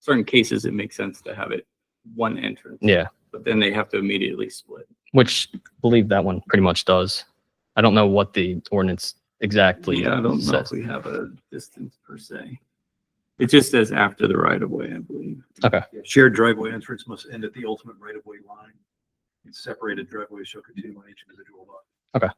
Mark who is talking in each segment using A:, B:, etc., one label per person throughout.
A: certain cases, it makes sense to have it one entrance.
B: Yeah,
A: But then they have to immediately split.
B: which I believe that one pretty much does. I don't know what the ordinance exactly
A: Yeah, I don't know if
B: says.
A: we have a distance per se. It just says after the right of way, I believe.
C: Shared driveway entrance must end at the ultimate right of way line. Separated driveways shall continue on each individual lot.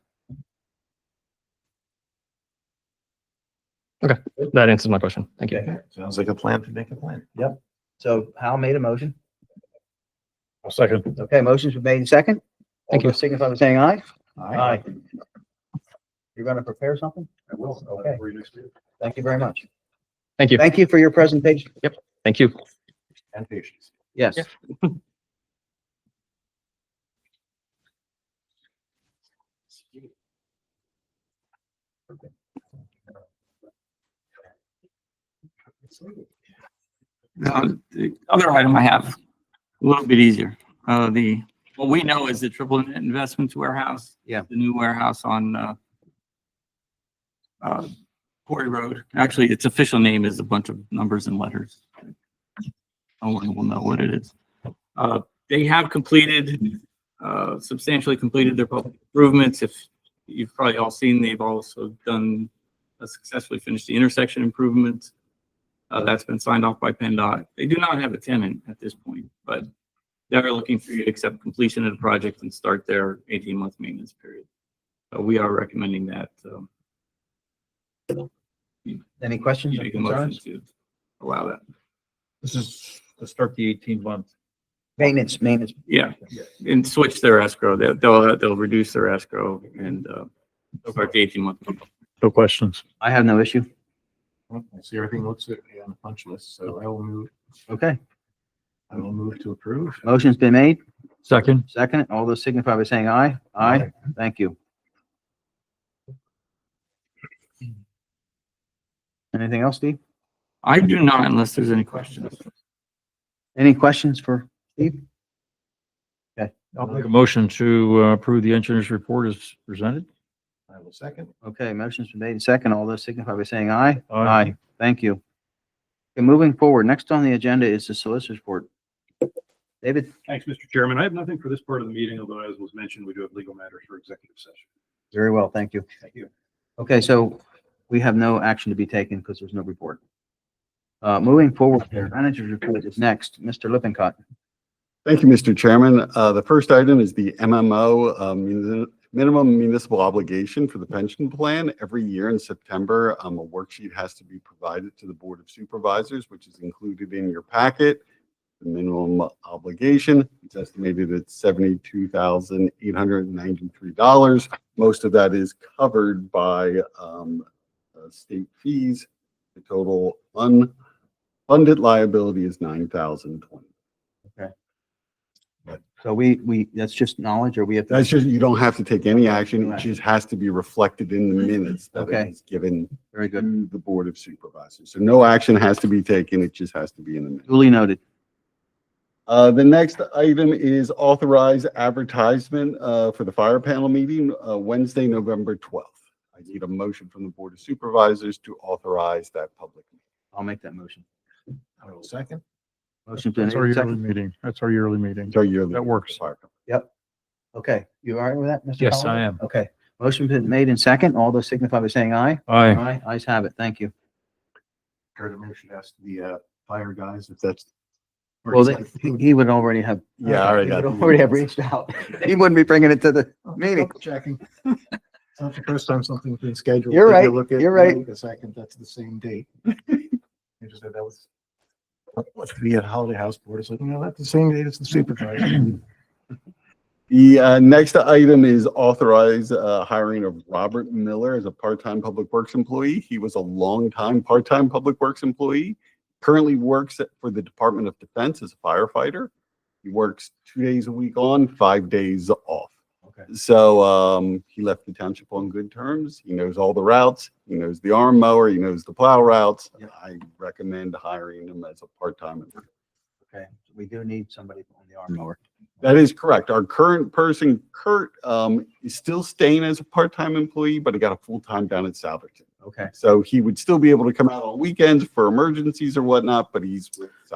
B: That answers my question. Thank you.
D: Sounds like a plan to make a plan.
E: Yep. So Hal made a motion.
F: I'll second.
E: Okay, motions were made in second. All
B: Thank you.
E: those signify by saying aye.
D: Aye.
E: You're gonna prepare something?
C: I will. I'll
E: Okay.
C: for you next year.
E: Thank you very much.
B: Thank you.
E: Thank you for your presentation.
B: Thank you.
D: And patience.
E: Yes.
A: Now, The other item I have, a little bit easier. Uh, the, what we know is the triple net investments warehouse.
E: Yeah.
A: The new warehouse on, uh, uh, Quarry Road. Actually, its official name is a bunch of numbers and letters. No one will know what it is. Uh, they have completed, uh, substantially completed their public improvements. If you've probably all seen, they've also done, uh, successfully finished the intersection improvements. Uh, that's been signed off by PennDOT. They do not have a tenant at this point, but they're looking for you to accept completion of the project and start their eighteen-month maintenance period. So we are recommending that, um,
E: Any questions
A: you
E: or
A: make a motion
E: concerns?
A: to allow that.
C: This is to start the eighteen month.
E: Maintenance, maintenance.
A: Yeah, and switch their escrow. They'll, they'll, they'll reduce their escrow and, uh, start the eighteen-month.
F: No questions.
E: I have no issue.
D: I see everything looks good on the punch list, so I will move,
E: Okay,
D: I will move to approve.
E: motion's been made.
F: Second.
E: Second, all those signify by saying aye. Aye. Thank you. Anything else, Steve?
A: I do not unless there's any questions.
E: Any questions for,
F: I'll make a motion to uh, approve the engineer's report as presented.
D: I will second.
E: okay, motion's been made in second. All those signify by saying aye.
F: Aye.
E: Thank you. Okay, moving forward, next on the agenda is the solicitor's report. David,
C: Thanks, Mr. Chairman. I have nothing for this part of the meeting, although as was mentioned, we do have legal matters for executive session.
E: very well, thank you.
C: Thank you.
E: Okay, so we have no action to be taken because there's no report. Uh, moving forward, the manager's report is next. Mr. Lippincott.
G: Thank you, Mr. Chairman. Uh, The first item is the MMO, um, muni- minimum municipal obligation for the pension plan. Every year in September, um, a worksheet has to be provided to the Board of Supervisors, which is included in your packet. The minimum obligation, it's estimated at $72,893. Most of that is covered by um, uh, state fees. The total unfunded liability is $9,020.
E: So we, we, that's just knowledge or we have, to-
G: That's just, you don't have to take any action. It
E: Right.
G: just has to be reflected in the minutes that
E: Okay.
G: it is given
E: very good.
G: to the Board of Supervisors. So no action has to be taken. It just has to be in the minutes.
E: Duly noted.
G: Uh, the next item is authorize advertisement, uh, for the fire panel meeting, uh, Wednesday, November 12th. I need a motion from the Board of Supervisors to authorize that public. meeting.
E: I'll make that motion.
D: I will second.
E: Motion's been
F: That's our
E: made.
F: yearly
E: second.
F: meeting. That's our yearly meeting.
G: It's our yearly-
F: That works.
G: Fire company.
E: Okay, you all right with that, Mr.
F: Yes,
E: Collins?
F: I am.
E: Okay, motion's been made in second. All those signify by saying aye.
F: Aye.
E: Aye, ayes have it. Thank you.
D: Kurt, I should ask the uh, fire guys if that's. or
E: Well,
D: is
E: they- he he would already have.
G: Yeah, I already
E: He would
G: got the-
E: Already have reached out. He wouldn't be bringing it to the
D: that-
E: meeting.
D: Double Checking. Oh, It's not the first time something's been scheduled.
E: You're
D: If you
E: right,
D: look at
E: you're right.
D: The second, that's the same date. I just said that was. What's the Holiday House Board is like, no, that's the same date as the supervisor.
G: The uh, next item is authorize uh, hiring of Robert Miller as a part-time Public Works employee. He was a longtime part-time Public Works employee. Currently works at- for the Department of Defense as a firefighter. He works two days a week on, five days off.
D: Okay.
G: So um, he left the township on good terms. He knows all the routes. He knows the arm mower. He knows the plow routes. I recommend hiring him as a part-time employee.
E: Okay, we do need somebody on the arm mower.
G: That is correct. Our current person, Kurt, um, is still staying as a part-time employee, but he got a full-time down at Salverton.
E: Okay.
G: So he would still be able to come out on weekends for emergencies or whatnot, but he's with Salverton.